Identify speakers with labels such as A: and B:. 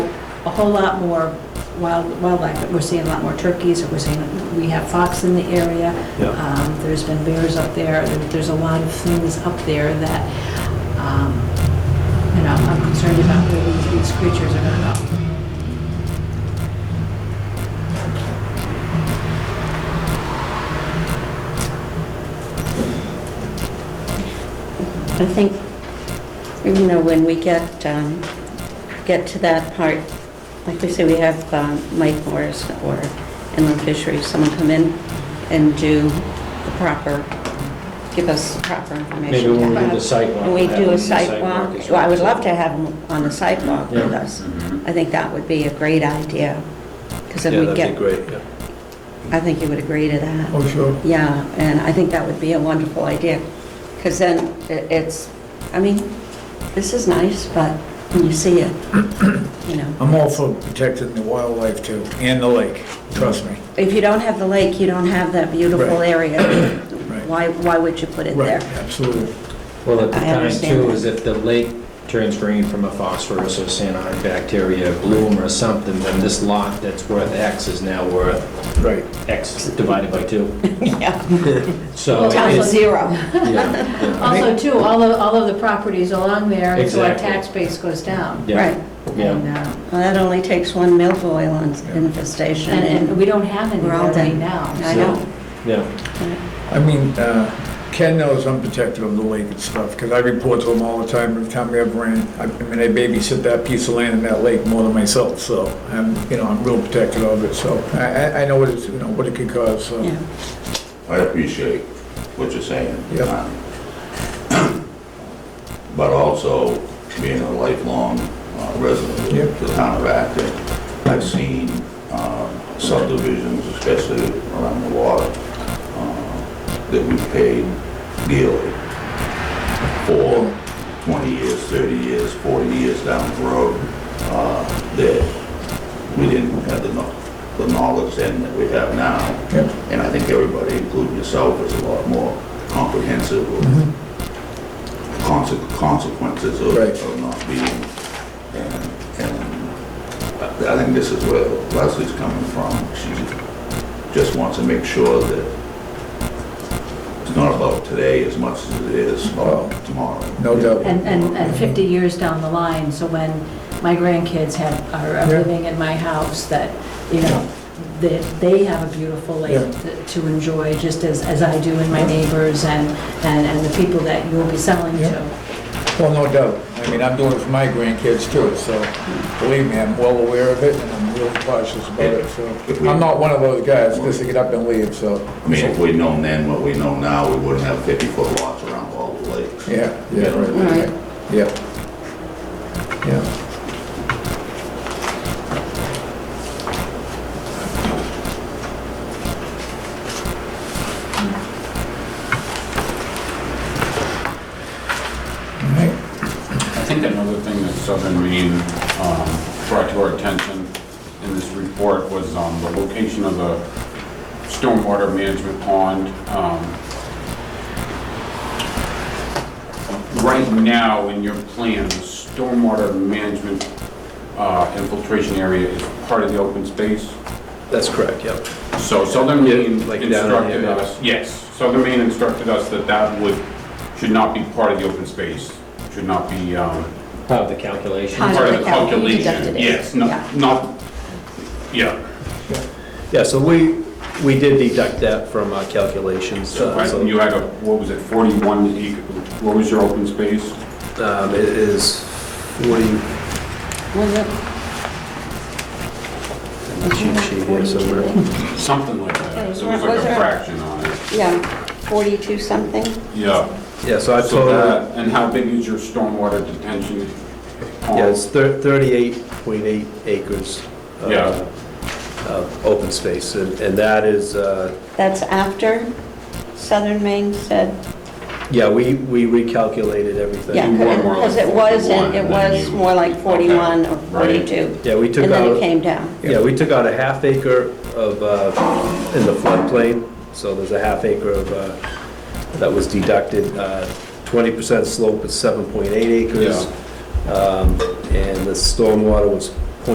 A: a whole lot more wild wildlife. We're seeing a lot more turkeys, or we're seeing, we have fox in the area.
B: Yeah.
A: Um, There's been bears up there. There- There's a lot of things up there that, um, you know, I'm concerned about where these- these creatures are going to go.
C: I think, you know, when we get, um, get to that part, like we say, we have um, Mike Morris or Inland Fisheries, someone come in and do the proper, give us the proper information.
B: Maybe when we
C: about-
B: do the sidewalk.
C: When we
B: have
C: do
B: the
C: a sidewalk,
B: as
C: well, I would love to have him on the sidewalk with
B: Yeah.
C: us. I think that would be a great idea, because then we get,
B: great, yeah.
C: I think you would agree to that.
D: Oh, sure.
C: Yeah, and I think that would be a wonderful idea, because then i- it's, I mean, this is nice, but when you see it, you know,
D: I'm all for protecting the wildlife too, and the lake, trust me.
C: if you don't have the lake, you don't have that beautiful
D: Right.
C: area.
D: Right.
C: Why, why would you put it there?
D: Right, absolutely.
B: Well, at the
C: I
B: time
C: understand
B: too,
C: that.
B: is if the lake turns green from a phosphorus or cyanide bacteria bloom or something, then this lot that's worth X is now worth
D: Right.
B: X divided by two.
C: Yeah,
B: So
A: Well,
B: it
A: it's
C: Town
A: also-
B: is,
C: zero.
B: yeah, yeah,
A: Also, too, all of, all of the properties along there, and so our
B: Exactly.
A: tax base goes down.
B: yeah,
C: Right,
B: Yeah,
A: And, uh,
C: well, that only takes one milfoil on- infestation,
A: and, and
C: and
A: we don't have any
C: we're
A: there
C: all
A: right
C: done.
A: now.
C: I know,
B: yeah,
D: I mean, uh, Ken knows I'm protective of the lake and stuff, because I report to him all the time, every time we have rain. I I mean, I babysit that piece of land in that lake more than myself, so, I'm, you know, I'm real protective of it, so I, I- I know what it's, you know, what it could cause, so.
C: yeah.
E: I appreciate what you're saying.
D: Yep.
E: But also, being a lifelong uh, resident
D: Yep.
E: of the town of Acton, I've seen uh, subdivisions, especially around the water, uh, that we paid dearly for 20 years, 30 years, 40 years down the road, uh, that we didn't have the kno- the knowledge then that we have now.
D: Yep.
E: And I think everybody, including yourself, is a lot more comprehensive of conse- consequences of
D: Right.
E: of not being. And and I I think this is where Leslie's coming from. She just wants to make sure that it's not about today as much as it is about tomorrow.
D: No doubt.
A: And, and, and 50 years down the line, so when my grandkids have, are are
D: Yeah.
A: living in my house, that, you know, that they have a beautiful lake
D: Yeah.
A: to- to enjoy, just as, as I do and my neighbors and, and, and the people that you'll be selling
D: Yeah.
A: to.
D: Well, no doubt. I mean, I'm doing it for my grandkids too, so believe me, I'm well aware of it and I'm real cautious about it, so. I'm not one of those guys just to get up and leave, so.
E: I mean, if we'd known then what we know now, we wouldn't have 50-foot lots around all the lakes.
D: Yeah, yeah, right,
C: Right.
D: right, yeah. Yeah,
F: I think another thing that Southern Maine um, brought to our attention in this report was um, the location of the stormwater management pond. Um, Right now, in your plan, the stormwater management uh, infiltration area is part of the open space.
G: That's correct, yep.
F: So Southern Maine
G: Yeah, like down in
F: instructed
G: here, yeah.
F: us, yes, Southern Maine instructed us that that would, should not be part of the open space, should not be um,
B: part of the calculation.
C: Part of
F: part
C: the
F: of the
C: cal- you
F: calculation.
C: deducted it,
F: Yes,
C: yeah.
F: not, not, yeah,
G: Yeah, so we, we did deduct that from our calculations. uh,
F: right,
G: so,
F: and you had a, what was it, 41 acre, what was your open space?
G: um, It is 40,
D: oh.
C: Was it?
G: cheat sheet here somewhere.
F: Something like that, it was
C: Okay,
F: like
C: was
F: a
C: there-
F: fraction on it,
C: Yeah, 42 something?
F: yeah.
G: Yeah, so I
F: So
G: told,
F: that, and how big is your stormwater detention? pond?
G: yeah, it's thir- 38.8 acres. uh,
F: Yeah.
G: Of open space, and and that is, uh,
C: That's after Southern Maine said
G: yeah, we, we recalculated everything.
C: Yeah,
F: You were more
C: because
F: like
C: it was, in-
F: 41,
C: it
F: and
C: was
F: you-
C: more like 41 or
F: right.
C: 42.
G: Yeah, we took
C: And then
G: out-
C: it came down.
G: Yeah, we took out a half acre of, uh, in the floodplain, so there's a half acre of, uh, that was deducted. uh, 20% slope is 7.8 acres. Um, And the stormwater was